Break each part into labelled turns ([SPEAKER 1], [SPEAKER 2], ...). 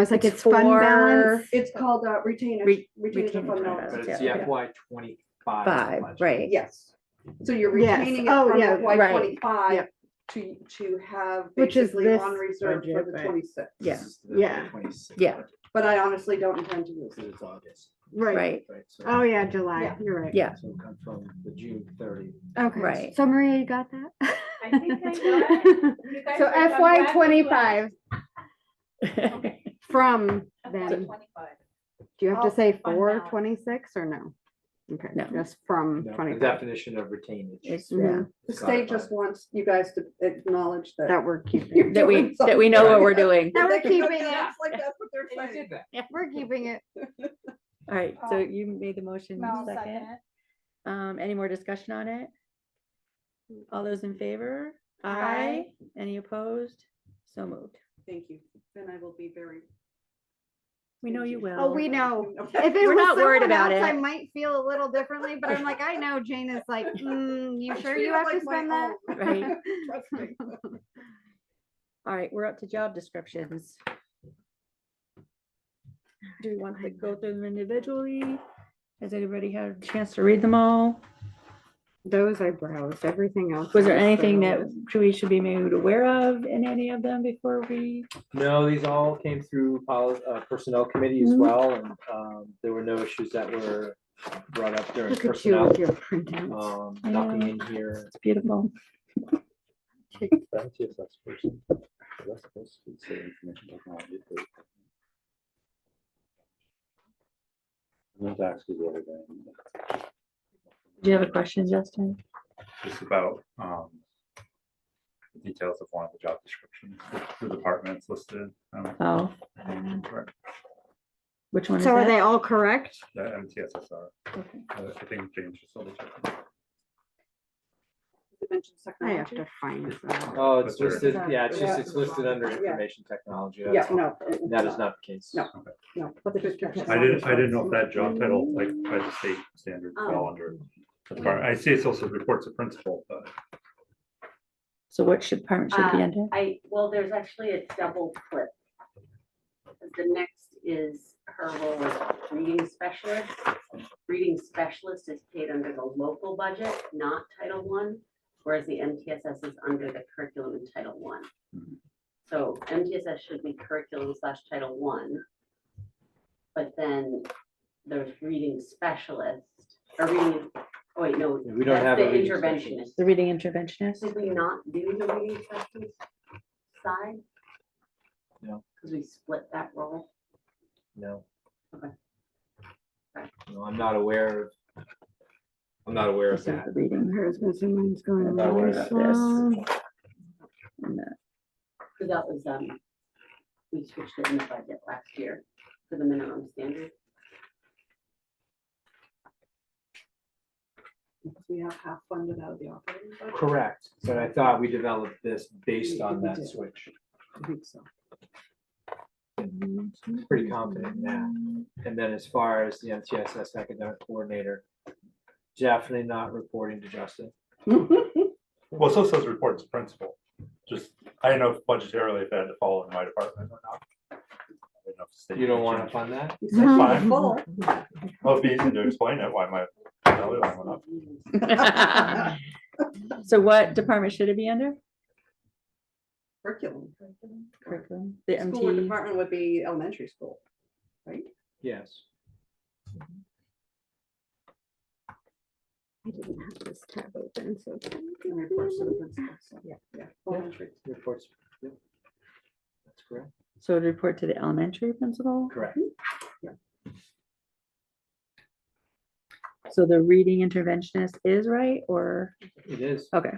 [SPEAKER 1] was like,
[SPEAKER 2] It's
[SPEAKER 1] it's fund
[SPEAKER 2] for-
[SPEAKER 1] balance.
[SPEAKER 3] It's called uh, retained,
[SPEAKER 2] Re-
[SPEAKER 3] retained
[SPEAKER 2] retained fund
[SPEAKER 3] fund balance.
[SPEAKER 4] But
[SPEAKER 2] balance.
[SPEAKER 4] it's
[SPEAKER 2] Yeah,
[SPEAKER 4] the
[SPEAKER 3] yeah.
[SPEAKER 4] FY twenty-five.
[SPEAKER 2] Five,
[SPEAKER 4] budget.
[SPEAKER 2] right?
[SPEAKER 3] Yes. So you're
[SPEAKER 1] Yes.
[SPEAKER 3] retaining it
[SPEAKER 1] Oh,
[SPEAKER 3] from
[SPEAKER 1] yeah,
[SPEAKER 3] FY
[SPEAKER 2] right.
[SPEAKER 3] twenty-five
[SPEAKER 1] Yep.
[SPEAKER 3] to, to have
[SPEAKER 1] Which is
[SPEAKER 3] basically
[SPEAKER 1] this
[SPEAKER 3] on reserve for
[SPEAKER 1] budget,
[SPEAKER 3] the
[SPEAKER 1] right.
[SPEAKER 3] twenty-six.
[SPEAKER 2] Yeah.
[SPEAKER 4] This is the FY
[SPEAKER 1] Yeah.
[SPEAKER 4] 26
[SPEAKER 2] Yeah.
[SPEAKER 4] budget,
[SPEAKER 3] But I honestly don't intend to use it.
[SPEAKER 4] Because it's August,
[SPEAKER 2] Right,
[SPEAKER 4] right? So-
[SPEAKER 1] Oh, yeah, July,
[SPEAKER 3] Yeah.
[SPEAKER 1] you're right.
[SPEAKER 2] Yeah.
[SPEAKER 4] So it comes from the June thirty.
[SPEAKER 1] Okay.
[SPEAKER 2] Right.
[SPEAKER 1] So Maria, you got that?
[SPEAKER 5] I think I got it. You guys
[SPEAKER 1] So
[SPEAKER 5] are- I'm glad
[SPEAKER 1] FY
[SPEAKER 5] you
[SPEAKER 1] twenty-five
[SPEAKER 5] Okay.
[SPEAKER 1] from
[SPEAKER 5] asked.
[SPEAKER 1] then,
[SPEAKER 5] Twenty-five.
[SPEAKER 1] do you have to
[SPEAKER 5] Oh,
[SPEAKER 1] say
[SPEAKER 5] fund
[SPEAKER 1] for
[SPEAKER 5] balance.
[SPEAKER 1] twenty-six or no? Okay,
[SPEAKER 2] No.
[SPEAKER 1] just from
[SPEAKER 4] No, The
[SPEAKER 1] twenty-five,
[SPEAKER 4] definition of retainage.
[SPEAKER 2] It's, yeah,
[SPEAKER 1] Mhm.
[SPEAKER 3] The state just wants you guys to acknowledge that.
[SPEAKER 1] that we're keeping.
[SPEAKER 3] you're
[SPEAKER 1] it.
[SPEAKER 2] that we,
[SPEAKER 3] doing
[SPEAKER 2] that we know what we're doing.
[SPEAKER 1] Now we're
[SPEAKER 3] They can go
[SPEAKER 1] keeping it.
[SPEAKER 3] nuts Like that's what
[SPEAKER 4] I
[SPEAKER 3] they're saying.
[SPEAKER 4] did that.
[SPEAKER 1] We're keeping it.
[SPEAKER 2] All right, so
[SPEAKER 5] Oh.
[SPEAKER 2] you made the motion
[SPEAKER 5] Mel
[SPEAKER 2] second.
[SPEAKER 5] second.
[SPEAKER 2] Um, any more discussion on it? All those in favor? Aye.
[SPEAKER 5] Aye.
[SPEAKER 2] Any opposed? So moved.
[SPEAKER 3] Thank you. And I will be very.
[SPEAKER 2] We know you
[SPEAKER 3] stingy.
[SPEAKER 2] will.
[SPEAKER 1] Oh, we know.
[SPEAKER 3] Okay.
[SPEAKER 1] If it
[SPEAKER 2] We're
[SPEAKER 1] was
[SPEAKER 2] not worried
[SPEAKER 1] someone
[SPEAKER 2] about
[SPEAKER 1] else, I
[SPEAKER 2] it.
[SPEAKER 1] might feel a little differently, but I'm like, I know Jane is like, mm, you
[SPEAKER 3] I
[SPEAKER 1] sure
[SPEAKER 3] treat
[SPEAKER 1] you
[SPEAKER 3] it
[SPEAKER 1] have to
[SPEAKER 3] like my
[SPEAKER 1] spend that?
[SPEAKER 3] own.
[SPEAKER 2] Right.
[SPEAKER 3] Trust me.
[SPEAKER 2] All right, we're up to job descriptions. Do we want to go through them individually? Has anybody had a chance to read them all?
[SPEAKER 1] Those I browsed, everything else.
[SPEAKER 2] Was there
[SPEAKER 1] I
[SPEAKER 2] anything that
[SPEAKER 1] browsed.
[SPEAKER 2] should- we should be made aware of in any of them before we?
[SPEAKER 4] No, these all came through poli- uh, personnel committee as
[SPEAKER 2] Mhm.
[SPEAKER 4] well, and, um, there were no issues that were brought up during
[SPEAKER 1] Look at you
[SPEAKER 4] personnel.
[SPEAKER 1] with your printouts.
[SPEAKER 4] Um,
[SPEAKER 2] I
[SPEAKER 4] nothing
[SPEAKER 2] know.
[SPEAKER 4] in here.
[SPEAKER 2] It's beautiful.
[SPEAKER 6] That's the assessed person. That's supposed to say information technology. but- That's actually the other thing.
[SPEAKER 2] Do you have a question, Justin?
[SPEAKER 6] Just about, um, details of one of the job descriptions, the departments listed, um,
[SPEAKER 2] Oh,
[SPEAKER 6] the
[SPEAKER 2] which one is
[SPEAKER 1] So are they
[SPEAKER 2] that?
[SPEAKER 1] all correct?
[SPEAKER 6] MTSSR.
[SPEAKER 2] Okay.
[SPEAKER 6] I I think James just told us.
[SPEAKER 3] You mentioned
[SPEAKER 1] I have
[SPEAKER 3] technology.
[SPEAKER 1] to find them.
[SPEAKER 4] Oh, it's
[SPEAKER 6] That's
[SPEAKER 4] listed,
[SPEAKER 3] right.
[SPEAKER 4] yeah, it's just,
[SPEAKER 3] Yeah.
[SPEAKER 4] it's listed under
[SPEAKER 3] Yeah.
[SPEAKER 4] information technology.
[SPEAKER 3] Yeah,
[SPEAKER 4] that's all.
[SPEAKER 3] no. it-
[SPEAKER 4] That is not the case.
[SPEAKER 3] No. No. but the description.
[SPEAKER 6] I didn't, I didn't know if that job title, like by the state standard, fell under the department. I see it's also reports of principal, but
[SPEAKER 2] So what should department should be
[SPEAKER 7] Uh,
[SPEAKER 2] under?
[SPEAKER 7] I, well, there's actually a double clip. The next is her role as reading specialist. Reading specialist is paid under the local budget, not Title One, whereas the MTSS is under the curriculum in Title One.
[SPEAKER 6] Mhm.
[SPEAKER 7] So MTSS should be curriculum slash Title One. But then there's reading specialist, or reading, oh wait, no.
[SPEAKER 4] We don't
[SPEAKER 7] that's
[SPEAKER 4] have
[SPEAKER 7] The
[SPEAKER 4] a reading specialist.
[SPEAKER 7] interventionist.
[SPEAKER 2] The reading interventionist?
[SPEAKER 7] Did we not do the reading specialist side?
[SPEAKER 4] No.
[SPEAKER 7] Because we split that role.
[SPEAKER 4] No.
[SPEAKER 7] Okay.
[SPEAKER 4] No, I'm not aware of. I'm not aware of
[SPEAKER 2] Is that
[SPEAKER 4] that.
[SPEAKER 2] the reading?
[SPEAKER 1] Hers was, mine's going
[SPEAKER 4] I'm not aware
[SPEAKER 1] really
[SPEAKER 4] of that.
[SPEAKER 1] slow.
[SPEAKER 2] And that-
[SPEAKER 7] So that was, um, we switched it in the budget last year for the minimum standard.
[SPEAKER 3] We have half funded out of the operating budget.
[SPEAKER 4] Correct, but I thought we developed this based
[SPEAKER 3] We-
[SPEAKER 4] on
[SPEAKER 3] we
[SPEAKER 4] that
[SPEAKER 3] did.
[SPEAKER 4] switch.
[SPEAKER 3] I think so.
[SPEAKER 4] Pretty confident in that. And then as far as the MTSS academic coordinator, definitely not reporting to Justin.
[SPEAKER 6] well, it still says reports of principal. Just, I didn't know if budgetarily if that had to fall in my department or not. I didn't know if the state
[SPEAKER 4] You don't
[SPEAKER 6] could
[SPEAKER 4] want
[SPEAKER 6] change
[SPEAKER 4] to
[SPEAKER 6] it.
[SPEAKER 4] fund that?
[SPEAKER 3] You said
[SPEAKER 6] Fine.
[SPEAKER 3] full.
[SPEAKER 6] Well, it'd be easy to explain it, why my. the other one went up.
[SPEAKER 2] So what department should it be under?
[SPEAKER 3] Curriculum.
[SPEAKER 2] Curriculum, the E?
[SPEAKER 3] School or
[SPEAKER 2] MT,
[SPEAKER 3] department would be elementary school, right?
[SPEAKER 4] Yes.
[SPEAKER 1] I didn't have this tab open, so.
[SPEAKER 3] And
[SPEAKER 1] Mm-hmm.
[SPEAKER 3] reports to the principal, so, yeah, yeah, elementary.
[SPEAKER 4] Reports. Yep. That's correct.
[SPEAKER 2] so it'd report to the elementary principal.
[SPEAKER 4] Correct.
[SPEAKER 2] So the reading interventionist is right or,
[SPEAKER 4] It is.
[SPEAKER 2] okay.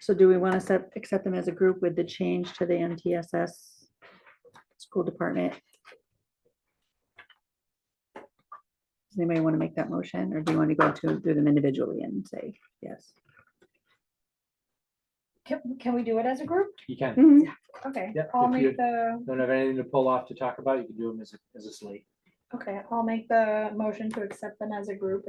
[SPEAKER 2] So do we want to set, accept them as a group with the change to the MTSS school department? Does anybody want to make that motion or do you want to go to, do them individually and say yes?
[SPEAKER 8] Can, can we do it as a group?
[SPEAKER 4] You can.
[SPEAKER 8] Okay,
[SPEAKER 4] Yep,
[SPEAKER 8] I'll
[SPEAKER 4] if you-
[SPEAKER 8] make the,
[SPEAKER 4] Don't have anything to pull off to talk about. You can do them as a, as a slate.
[SPEAKER 8] okay, I'll make the motion to accept them as a group